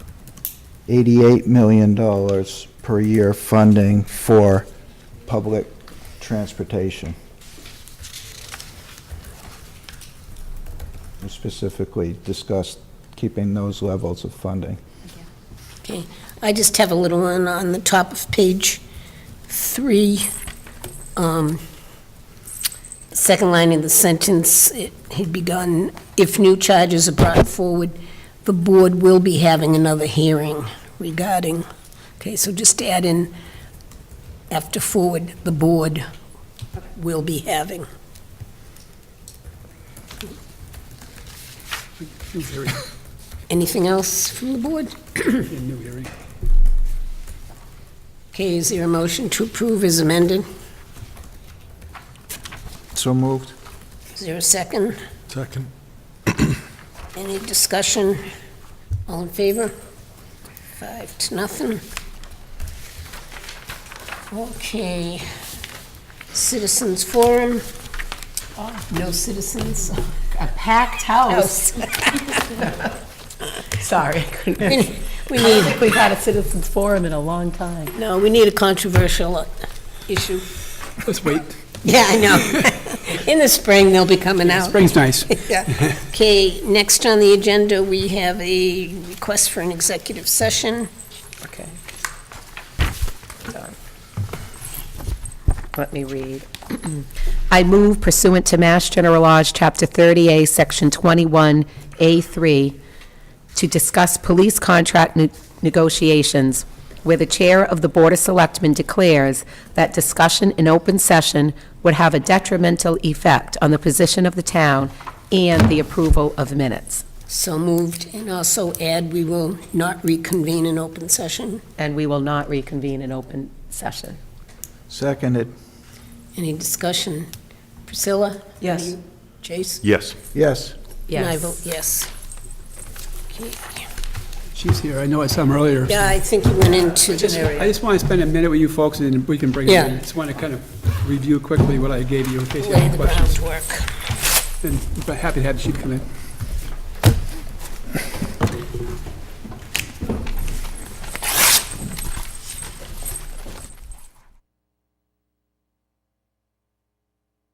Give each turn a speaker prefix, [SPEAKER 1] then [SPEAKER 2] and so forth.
[SPEAKER 1] $88 million per year funding for public transportation. We specifically discussed keeping those levels of funding.
[SPEAKER 2] Okay, I just have a little one on the top of page three. um, Second line of the sentence, it had begun, if new charges are brought forward, the board will be having another hearing regarding, okay, so just add in, after forward, the board will be having.
[SPEAKER 3] New hearing,
[SPEAKER 2] Anything else from the board?
[SPEAKER 3] yeah, new hearing.
[SPEAKER 2] Okay, is there a motion to approve as amended?
[SPEAKER 1] So moved?
[SPEAKER 2] Is there a second?
[SPEAKER 3] Second.
[SPEAKER 2] Any discussion? All in favor? Five to nothing. Okay. Citizens Forum. Oh, No citizens.
[SPEAKER 4] A packed house. Oh, Sorry.
[SPEAKER 2] We
[SPEAKER 4] couldn't-
[SPEAKER 2] need, we
[SPEAKER 4] I don't
[SPEAKER 2] need-
[SPEAKER 4] think we've had a citizens forum in a long time.
[SPEAKER 2] no, we need a controversial uh, issue.
[SPEAKER 3] Let's wait.
[SPEAKER 2] Yeah, I know. In the spring, they'll be coming out.
[SPEAKER 3] Spring's nice.
[SPEAKER 2] Yeah. Okay, next on the agenda, we have a request for an executive session.
[SPEAKER 4] Okay. Let me read.
[SPEAKER 5] I move pursuant to Mass General Lodge, Chapter 30A, Section 21A3, to discuss police contract ne- negotiations, where the Chair of the Board of Selectmen declares that discussion in open session would have a detrimental effect on the position of the town and the approval of minutes.
[SPEAKER 2] So moved, and also add, we will not reconvene in open session.
[SPEAKER 5] And we will not reconvene in open session.
[SPEAKER 1] Seconded?
[SPEAKER 2] Any discussion? Priscilla?
[SPEAKER 4] Yes.
[SPEAKER 2] Jason?
[SPEAKER 6] Yes.
[SPEAKER 1] Yes.
[SPEAKER 2] And I vote yes. Okay.
[SPEAKER 3] She's here, I know I saw him earlier.
[SPEAKER 2] Yeah, I think you went into
[SPEAKER 3] Just- I
[SPEAKER 2] the,
[SPEAKER 3] just want to spend a minute with you folks, and then we can bring it in.
[SPEAKER 2] Yeah.
[SPEAKER 3] I just want to kind of review quickly what I gave you in case you have
[SPEAKER 2] lay
[SPEAKER 3] any
[SPEAKER 2] the
[SPEAKER 3] questions.
[SPEAKER 2] groundwork.
[SPEAKER 3] And I'm happy to have the chief come in.